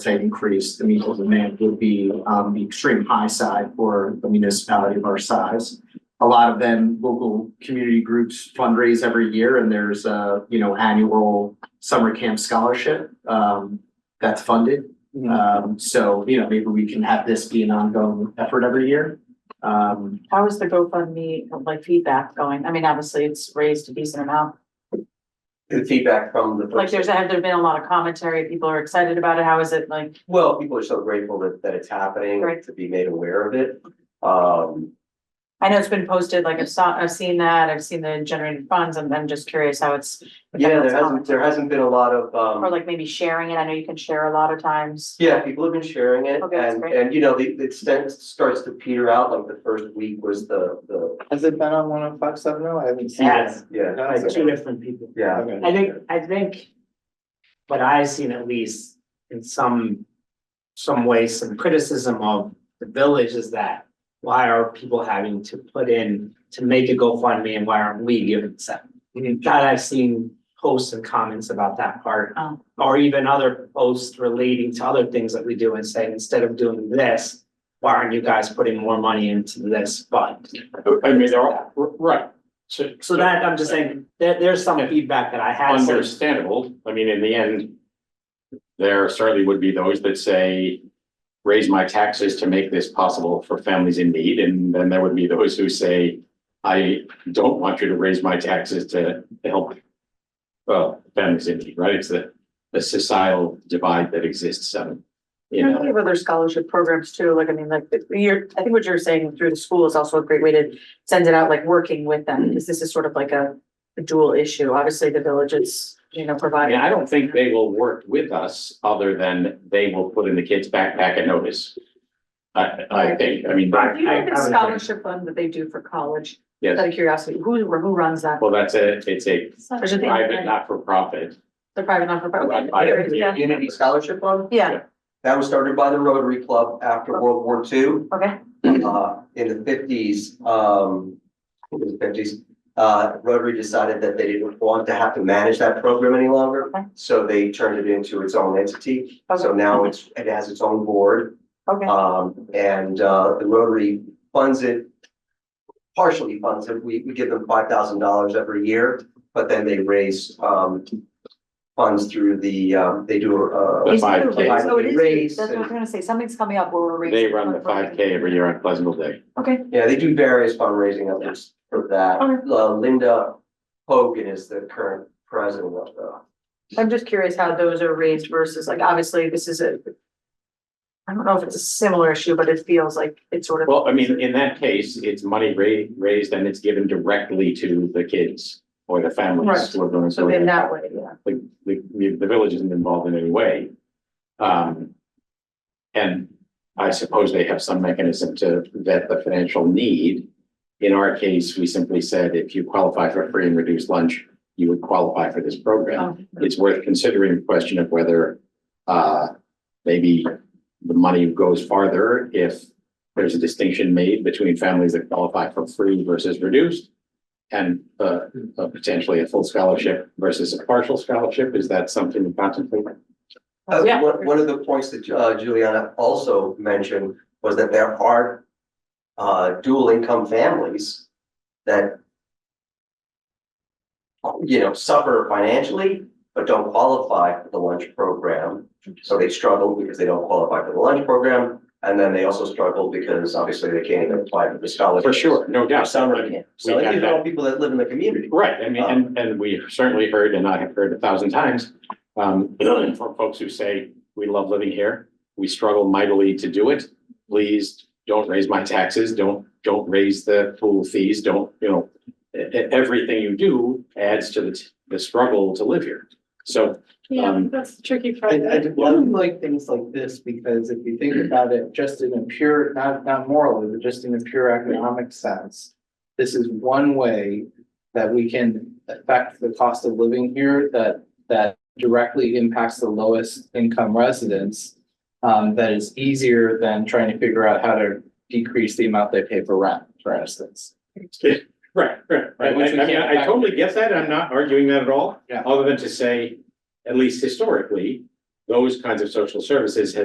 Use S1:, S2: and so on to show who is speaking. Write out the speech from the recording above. S1: say increase, the meaningful demand would be on the extreme high side for a municipality of our size. A lot of them, local community groups fundraise every year and there's a, you know, annual summer camp scholarship um that's funded. Um, so, you know, maybe we can have this be an ongoing effort every year. Um,
S2: How is the GoFundMe like feedback going? I mean, obviously, it's raised a decent amount.
S3: the feedback from the.
S2: Like, there's, have there been a lot of commentary? People are excited about it. How is it like?
S3: Well, people are so grateful that, that it's happening,
S2: Right.
S3: to be made aware of it. Um,
S2: I know it's been posted, like I've saw, I've seen that, I've seen the generated funds, and I'm just curious how it's. if
S3: yeah, there
S2: anyone's
S3: hasn't, there
S2: commented.
S3: hasn't been a lot of,
S2: Or
S3: um,
S2: like maybe sharing it. I know you can share a lot of times.
S3: yeah, people have been sharing it.
S2: Okay, that's
S3: And,
S2: great.
S3: and you know, the, the extent starts to peter out, like the first week was the, the.
S4: Has it been on one oh five seven oh? I haven't seen it.
S5: Yes,
S3: Yeah,
S4: No,
S5: by
S4: it's
S5: two
S4: okay.
S5: different people.
S3: yeah.
S4: Okay.
S5: I think, I think what I've seen at least in some, some way, some criticism of the village is that why are people having to put in to make a GoFundMe and why aren't we giving seven? That I've seen posts and comments about that part.
S2: Oh.
S5: Or even other posts relating to other things that we do and saying, instead of doing this, why aren't you guys putting more money into this fund?
S6: I mean, they're all, r- right. So,
S5: So that, I'm just saying, there, there's some feedback that I had. so-
S6: Understandable, I mean, in the end. There certainly would be those that say, raise my taxes to make this possible for families in need, and then there would be those who say. I don't want you to raise my taxes to to help. Well, families in need, right, it's the, the societal divide that exists, um, you
S2: And we
S6: know,
S2: have other scholarship programs too, like, I mean, like, you're, I think what you're saying through the school is also a great way to send it out, like, working with them, because this is sort of like a a dual issue. Obviously, the village is, you know,
S6: I mean,
S2: providing.
S6: I don't think they will work with us, other than they will put in the kid's backpack a notice. I, I think, I mean.
S2: Do you know
S6: I- I
S2: the
S6: would-
S2: scholarship fund that they do for college?
S6: Yes.
S2: Out of curiosity, who, who runs that?
S6: Well, that's a, it's a
S2: There's a thing,
S6: private,
S2: right?
S6: not-for-profit.
S2: The private non-profit.
S6: Run by
S2: okay,
S6: the
S2: yeah,
S3: Community Scholarship Fund,
S2: Yeah,
S3: that was started by the Rotary Club after World War II.
S2: okay,
S3: uh, in the fifties, um, I think it was fifties, uh, Rotary decided that they didn't want to have to manage that program any longer.
S2: Okay.
S3: So they turned it into its own entity. So
S2: Okay.
S3: now it's, it has its own board.
S2: okay.
S6: uh,
S3: Um, and, uh, the Rotary funds it, partially funds it. We, we give them five thousand dollars every year, but then they raise, um, funds through the, um, they do, uh,
S6: The five
S2: It's moving,
S6: K,
S2: So it is,
S3: Raise
S2: that's what I was
S3: and-
S2: gonna say, something's coming up where we're raising.
S6: they run the five K every year on Pleasantville Day.
S2: Okay,
S3: Yeah, they do various fundraising efforts for that.
S2: Okay.
S3: Uh, Linda Hogan is the current president of the.
S2: I'm just curious how those are raised versus like, obviously, this is a. I don't know if it's a similar issue, but it feels like it's sort of.
S6: Well, I mean, in that case, it's money ra- raised and it's given directly to the kids or the
S2: Right.
S6: families. who are going to-
S2: So then that way, yeah.
S6: Like, like, the, the village isn't involved in any way. Um, and I suppose they have some mechanism to vet the financial need. In our case, we simply said, if you qualify for free and reduced lunch, you would qualify for this program.
S2: Oh,
S6: it's worth considering the question of whether uh maybe the money goes farther if there's a distinction made between families that qualify for free versus reduced and uh uh, potentially a full scholarship versus a partial scholarship. Is that something to contemplate?
S3: Uh,
S2: Yeah.
S3: One, one of the points that uh, Juliana also mentioned was that there are uh, dual income families that you know, suffer financially, but don't qualify for the lunch program. So they struggle because they don't qualify for the lunch program. And then they also struggle because obviously they can't even apply for the scholarship.
S6: For sure, no doubt.
S3: Some are camp. So
S6: We
S3: these
S6: got
S3: are all
S6: that.
S3: people that live in the community.
S6: Right, I mean,
S4: Um,
S6: and and we certainly heard, and I have heard a thousand times, um, from folks who say, we love living here. We struggle mightily to do it. Please don't raise my taxes. Don't, don't raise the pool fees. Don't, you know, e- e- everything you do adds to the, t- the struggle to live here. So,
S7: Yeah,
S6: Um,
S7: that's tricky for.
S4: I, I love like things like this because if you think about it, just in a pure, not, not morally, but just in a pure economic sense. This is one way that we can affect the cost of living here that, that directly impacts the lowest income residents. Um, that is easier than trying to figure out how to decrease the amount they pay for rent, for instance.
S6: right, right,
S4: right. Which we
S6: I- I mean,
S4: can't-
S6: I totally get that. I'm not arguing that at all.
S4: Yeah.
S6: Other than to say, at least historically, those kinds of social services has